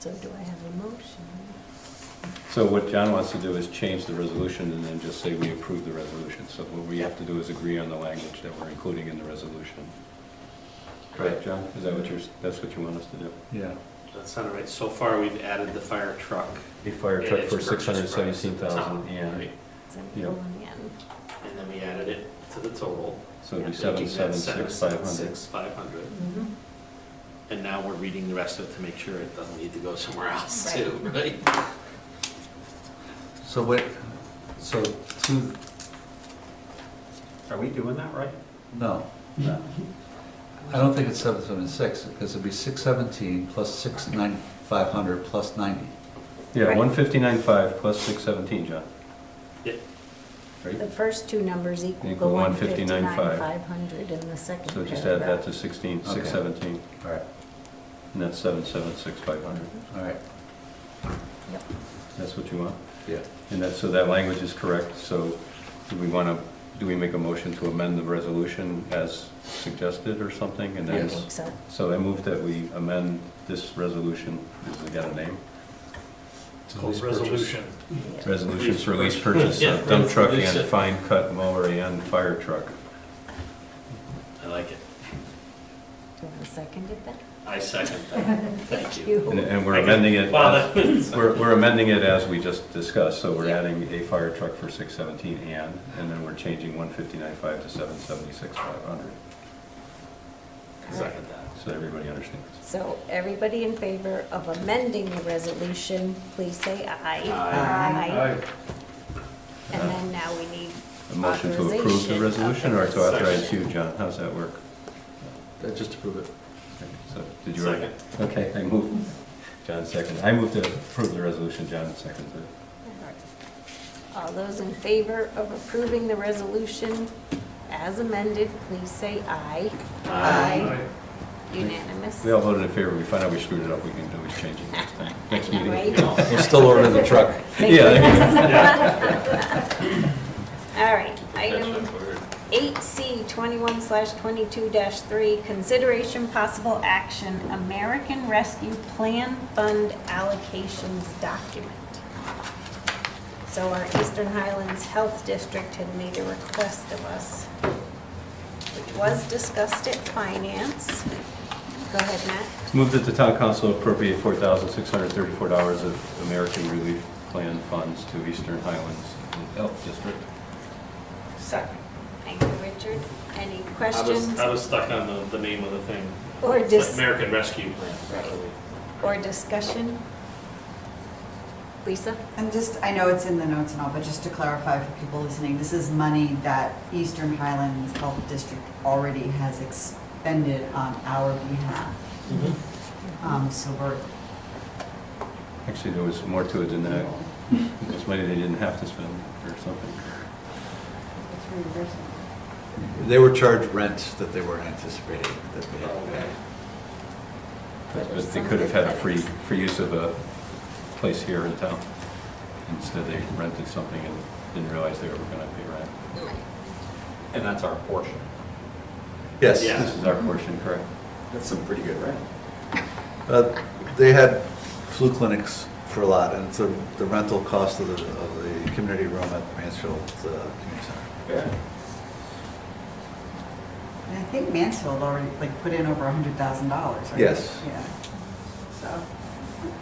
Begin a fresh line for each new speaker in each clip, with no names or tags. So do I have a motion?
So what John wants to do is change the resolution and then just say we approve the resolution. So what we have to do is agree on the language that we're including in the resolution. Correct, John? Is that what you're, that's what you want us to do?
Yeah.
That sounded right. So far, we've added the fire truck.
A fire
and
truck
its
for
purchase
six
price
hundred
at the
seventeen
top,
thousand, yeah.
right?
Is that
Yeah.
going in?
And then we added it to the total.
So it'd be
Yeah.
seven,
making that
seven, six, five hundred.
7,600.
Mhm.
Mm-hmm.
And now we're reading the rest of it to make sure it doesn't need to go somewhere else
Right.
too, right?
So what, so to,
Are we doing that right?
no, no. I don't think it's seven seventy-six, because it'd be six seventeen plus six nine, five hundred plus ninety.
Yeah,
Right.
one fifty-nine five plus six seventeen, John.
Yeah.
Right?
The first two numbers equal the
Equal
one
159,500,
fifty-nine, five hundred in the second
So
paragraph.
just add that to sixteen, six
Okay.
seventeen,
All right.
and that's seven, seven, six, five hundred.
All right,
Yep.
That's what you want?
yeah.
And that, so that language is correct, so do we want to, do we make a motion to amend the resolution as suggested or something? And
I
then,
think so.
so I move that we amend this resolution, has it got a name?
Close resolution.
Yeah.
Resolution for lease purchase of dump truck and fine cut mower and fire truck.
I like it.
Do I second it then?
I second that. Thank you.
And and we're
I can-
amending it,
Well,
as-
that-
we're we're amending it as we just discussed, so we're
Yeah.
adding a fire truck for 617 and, and then we're changing 159.5 to 776,500.
Second that.
So everybody understands.
So everybody in favor of amending the resolution, please say aye.
Aye.
And then now we need
A motion to approve
authorization
the
of
resolution or to authorize you,
resolution.
John? How's that work?
Uh, Just to prove it.
So, did you already? Okay, I move, John second. I move to approve the resolution, John seconds it.
All those in favor of approving the resolution as amended, please say aye. Aye. Unanimous.
We all voted in favor. We find out we screwed it up, we can always change it next time, next meeting.
Right?
We'll still order the truck.
Thank you.
Yeah.
All right,
That's
item
what we're-
8C 21/22-3, consideration possible action, American Rescue Plan Fund allocations document. So our Eastern Highlands Health District had made a request of us, which was discussed at finance. Go ahead, Matt.
Move that the town council appropriate four thousand six hundred thirty-four dollars of American Relief Plan funds to Eastern Highlands Health District.
Second. Thank you, Richard. Any
I was,
questions
I was stuck on the, the name of the thing.
or
It's
dis-
American Rescue Plan. probably.
or discussion? Lisa?
And just, I know it's in the notes and all, but just to clarify for people listening, this is money that Eastern Highlands Health District already has expended on our behalf. Um, so we're,
Actually, there was more to it than that. There's money they didn't have to spend or something.
They were charged rent that they weren't anticipating that they had to pay.
But but they could have had a free, free use of a place here in town. Instead, they rented something and didn't realize they were going to pay rent.
And that's our portion.
Yes.
Yeah.
This is our portion, correct?
That's some pretty good rent.
Uh, They had flu clinics for a lot, and so the rental cost of the, of the community room at the Mansfield uh, Community Center.
Yeah.
and I think Mansfield already, like, put in over a hundred thousand dollars, right?
Yes.
Yeah. So,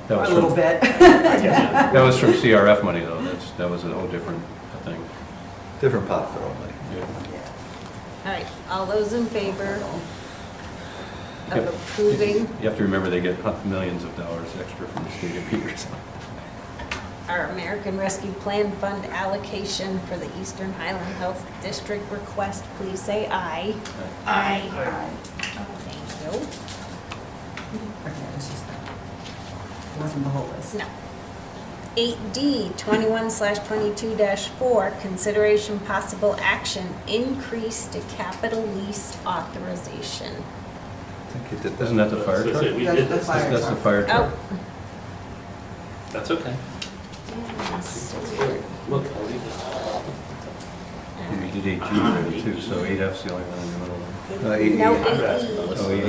That was
a little
from-
bit.
Yeah.
That was from CRF money, though. That's, that was a whole different thing.
Different pot for only.
Yeah.
All right, all those in favor of
Yep.
approving
You have to remember, they get hu- millions of dollars extra from the state of Peters.
our American Rescue Plan Fund allocation for the Eastern Highland Health District request, please say aye. Aye. Oh, Thank you.
Okay, it was just, it wasn't the whole list.
No. 8D, 21/22-4, consideration possible action, increase to capital lease authorization.
I think you did that.
Isn't that the fire
So
truck?
say We
That's
did
the
this.
fire
That's the
truck.
fire truck.
Oh.
That's okay.
yes.
Look, I'll leave this.
Oh.
We did eight G there too, so eight F's the only one in the middle.
Uh,
No,
eighty-eight.
eight E.
Oh, yeah.